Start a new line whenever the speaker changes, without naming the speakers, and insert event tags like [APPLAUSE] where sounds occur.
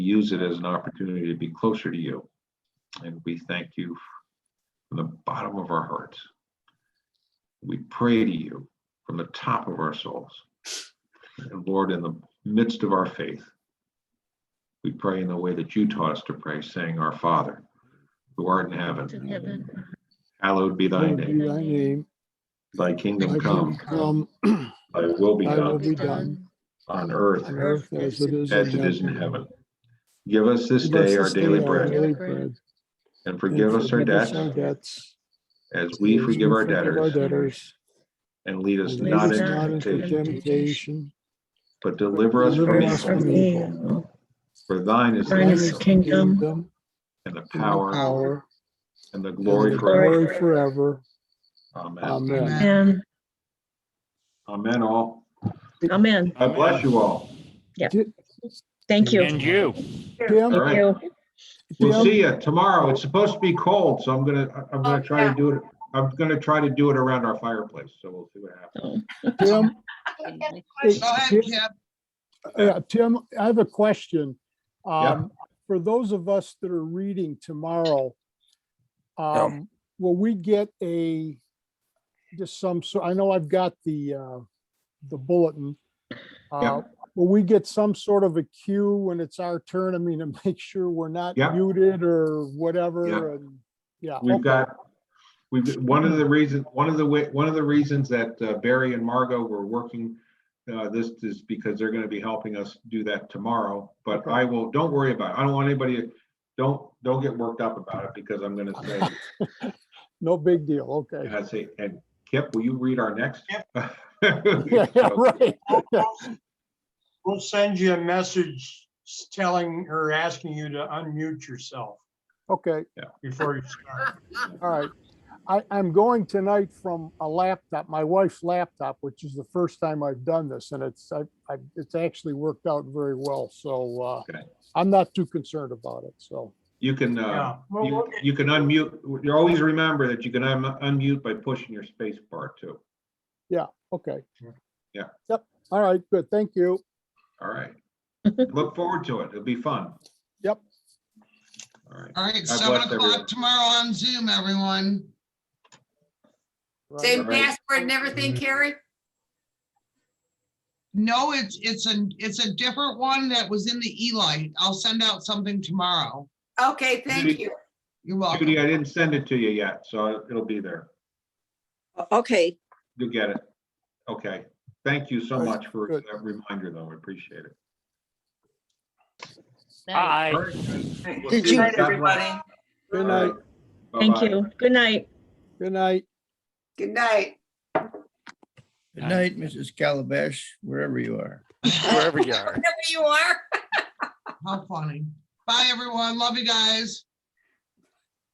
use it as an opportunity to be closer to you. And we thank you from the bottom of our hearts. We pray to you from the top of our souls. And Lord, in the midst of our faith, we pray in the way that you taught us to pray, saying, Our Father, who art in
in
heaven,
heaven.
hallowed be thy
Lord,
name.
be Thy name,
Thy
thy
kingdom
kingdom
come,
come
thy will be
Thy
done
will be done
on earth
on earth as it is
as it is in heaven. Give us this
Give us
day our daily
day
bread
daily
bread.
bread,
and
and
forgive us our debts
debts,
as we
as
forgive our
Our
debtors
debtors.
and lead us
and
lead
not
lead us
into
not into
temptation,
temptation,
temptation,
but deliver us from
deliver us
evil.
from
evil.
For thine is the
Thine is
kingdom
kingdom,
and the
and the
power
Power.
and the
and
glory
the
forever.
glory Forever.
Amen.
Amen.
and
Amen all.
amen.
God bless you all.
Thank you.
And you.
Pam,
All right.
Thank you.
We'll
Pam,
see you tomorrow. It's supposed to be cold, so I'm gonna, I'm gonna try to do it. I'm gonna try to do it around our fireplace, so we'll see what happens.
So,
Pam,
Go ahead, Kim.
uh, Tim, I have a question.
Yeah.
Um, For those of us that are reading tomorrow, um, will we get a, just some, so, I know I've got the, uh, the bulletin. Uh, Will we get some sort of a cue when it's our turn? I mean, to [LAUGHS] make sure we're not
Yeah.
muted or whatever and, yeah.
We've
okay.
got, we've, one of the
Mm-hmm.
reasons, one of the, wa- one of the reasons that uh, Barry and Margot were working uh, this is because they're gonna be helping us do that tomorrow, but I will, don't worry about it. I don't want anybody, don't, don't get worked up about it because I'm gonna say,
[LAUGHS]
No big deal, okay.
I say, and Kip, will you read our next? [LAUGHS]
[LAUGHS]
[LAUGHS]
Yeah, yeah,
So,
right.
We'll send you a message telling or asking you to unmute yourself
Okay,
before you start.
all right. I, I'm going tonight from a laptop, my wife's laptop, which is the first time I've done this, and it's, I, I, it's actually worked out very well, so, uh,
Okay.
I'm not too concerned about it, so.
You can, uh,
Yeah. Well,
you,
we'll get-
you can unmute, you always remember that you can un- unmute by pushing your space bar too.
Okay.
Yeah.
Yep, all right, good, thank you.
All
[LAUGHS]
right. Look forward to it. It'll be fun.
Yep.
All right.
All right,
God
seven
bless everyone.
o'clock tomorrow on Zoom, everyone.
Right.
Same
Right.
password and everything, Carrie?
No, it's, it's a, it's a different one that was in the Eli. I'll send out something tomorrow.
Okay, thank
Judy.
you.
You're welcome.
Judy, I didn't send it to you yet, so it'll be there.
Okay,
You'll get it. Okay. Thank you so
Good,
much for
good.
that reminder, though. I appreciate it.
Aye.
All right, guys. We'll
Did
see
you-
God bless.
Good
All
night,
right.
Thank
Bye-bye.
you. Good night.
good night.
Good night.
Good night, Mrs. Calabash, wherever you are.
Wherever you are.
Wherever you are.
How funny. Bye, everyone. Love you guys.